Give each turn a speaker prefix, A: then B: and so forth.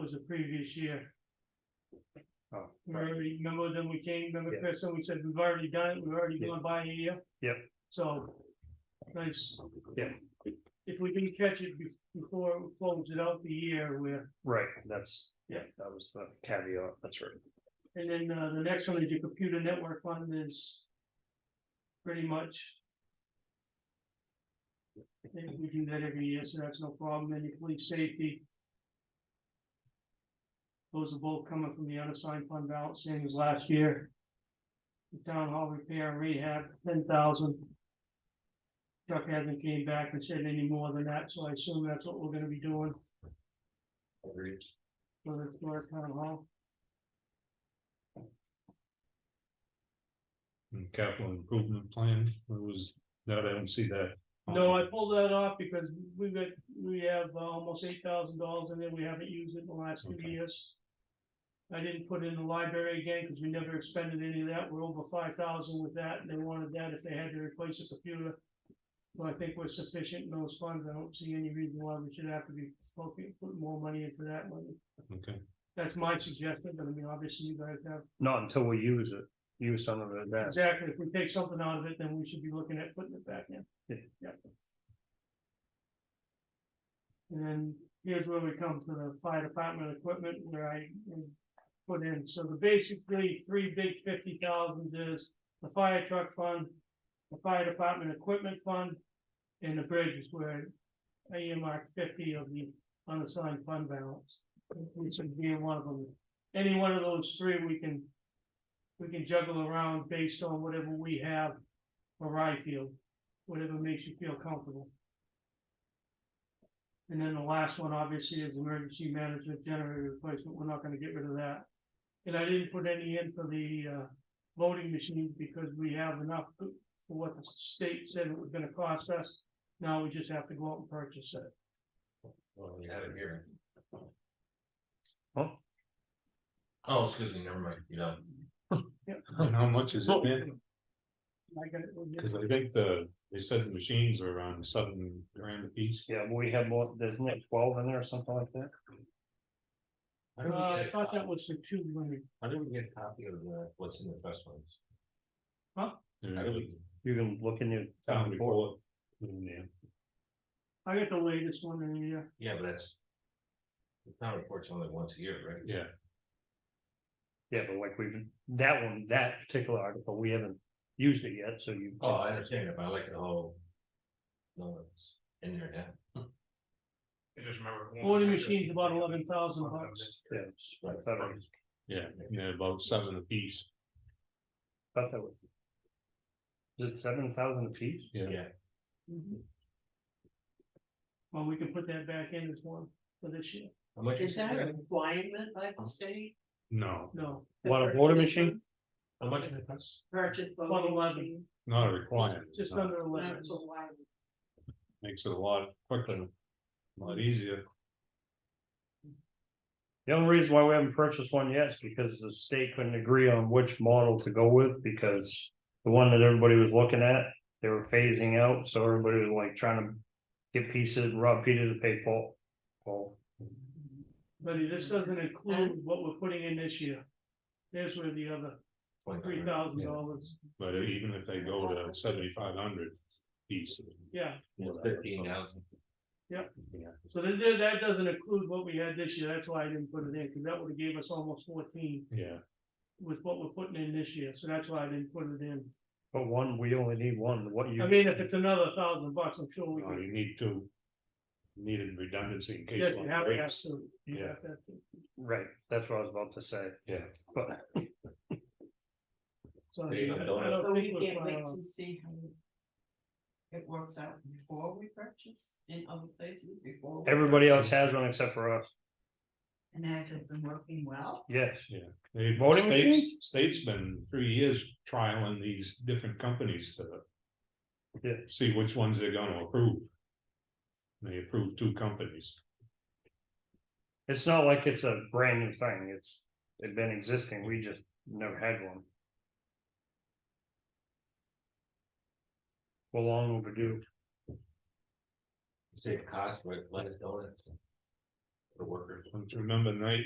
A: was the previous year.
B: Oh,
A: Remember, remember then we came, remember
B: Yeah.
A: Chris, and we said, we've already done it, we've already
B: Yeah.
A: gone by a year.
B: Yep.
A: So, nice.
B: Yeah.
A: If we can catch it bef- before we close it out the year, we're,
B: Right, that's,
A: Yeah.
B: yeah, that was the caveat, that's right.
A: and then, uh, the next one is your computer network fund is. Pretty much. I think we do that every year, so that's no problem, and your police safety. Those are both coming from the unassigned fund balance, same as last year. The Town hall repair and rehab, ten thousand. Chuck hasn't came back and said any more than that, so I assume that's what we're gonna be doing for the, for our town hall.
C: And capital improvement plan, it was, that I don't see that.
A: No, I pulled that off because we've got, we have uh, almost eight thousand dollars in there, we haven't used it in the last two
C: Okay.
A: years. I didn't put it in the library again, because we never expended any of that, we're over five thousand with that, and they wanted that if they had to replace a computer. So I think we're sufficient in those funds, I don't see any reason why we should have to be focusing, putting more money into that money.
C: Okay,
A: That's my suggestion, but I mean, obviously you guys have,
B: Not until we use it, use some of it then.
A: exactly, if we take something out of it, then we should be looking at putting it back in.
B: Yeah.
A: And then here's where we come to the fire department equipment where I um, put in, so the basically three big fifty thousand is the fire truck fund. The fire department equipment fund and the bridges where I earmarked fifty of the unassigned fund balance. We should be in one of them, any one of those three we can. We can juggle around based on whatever we have for Ryfield, whatever makes you feel comfortable. And then the last one, obviously, is emergency management generator replacement, we're not gonna get rid of that. And I didn't put any in for the, uh, voting machines because we have enough for what the state said it was gonna cost us. Now we just have to go out and purchase it.
D: Well, you had it here.
B: Huh?
D: Oh, excuse me, never mind, you know,
C: and how much is it then?
A: I got it, we'll get-
C: Cause I think the, they said the machines are around seven grand a piece.
B: Yeah, we have more, there's like twelve in there or something like that.
D: I
A: Uh,
D: don't
A: I
D: get, a
A: thought that
D: copy-
A: was for two women.
D: I didn't get a copy of the, what's in the first ones.
C: There's
D: I
C: a
D: didn't-
B: You can look in your
C: Town
B: town report.
C: report. in there.
A: I got the latest one in here.
D: Yeah, but that's. The town report's only once a year, right?
C: Yeah,
B: Yeah, but like we've, that one, that particular article, we haven't used it yet, so you.
D: Oh, I understand it, but I like the whole. No, it's in there now.
E: I just remember. one
A: Voting
E: time-
A: machine's about eleven thousand bucks.
B: Yeah, it's- I thought it was-
C: yeah, yeah, about seven a piece,
B: thought that was. Is it seven thousand apiece?
C: yeah.
D: Yeah.
A: Mm-hmm. Well, we can put that back in as one for this year.
D: How much
F: Is Oh.
D: is
F: that a
D: it?
F: requirement by the state?
C: No,
A: No,
B: What, a water machine?
D: How much did it cost?
F: Purchase
A: One
F: voting
A: eleven.
F: machine,
C: not a requirement,
A: just
C: no.
A: under eleven.
F: that's a lot.
C: makes it a lot quicker, a lot easier.
B: The only reason why we haven't purchased one yet is because the state couldn't agree on which model to go with, because the one that everybody was looking at, they were phasing out, so everybody was like trying to get pieces, rob Peter to pay Paul. Paul,
A: Buddy, this doesn't include what we're putting in this year. There's where the other three thousand dollars,
C: But even if they go to seventy-five hundred piece.
A: yeah,
D: It's fifteen thousand.
A: so that, that- that doesn't include what we had this year, that's why I didn't put it in, because that would have gave us almost fourteen
C: Yeah,
A: with what we're putting in this year, so that's why I didn't put it in.
B: But one, we only need one, what you.
A: I mean, if it's another thousand bucks, I'm sure we
C: no,
A: could,
C: Uh, you need to. Needed redundancy in case.
A: yes,
C: one
A: you have, you have
C: breaks.
A: to. you
C: Yeah.
A: have to.
B: Right, that's what I was about to say,
C: Yeah.
B: but
A: So
D: There
A: I mean,
D: you
A: I
D: go.
A: don't
F: So
A: think uh,
F: we
A: we're
F: can't
A: far
F: wait
A: off.
F: to see how. It works out before we purchase in other places before. we
B: everybody else
F: purchase.
B: has one except for us,
F: And has it been working well?
B: yes.
C: They,
B: Voting
C: states,
B: machines?
C: state's been three years trialing these different companies to.
B: Yeah.
C: See which ones they're gonna approve. They approved two companies,
B: It's not like it's a brand new thing, it's, it's been existing, we just never had one. We're long overdue.
D: Save cost, but let us know.
B: the workers, don't you remember the night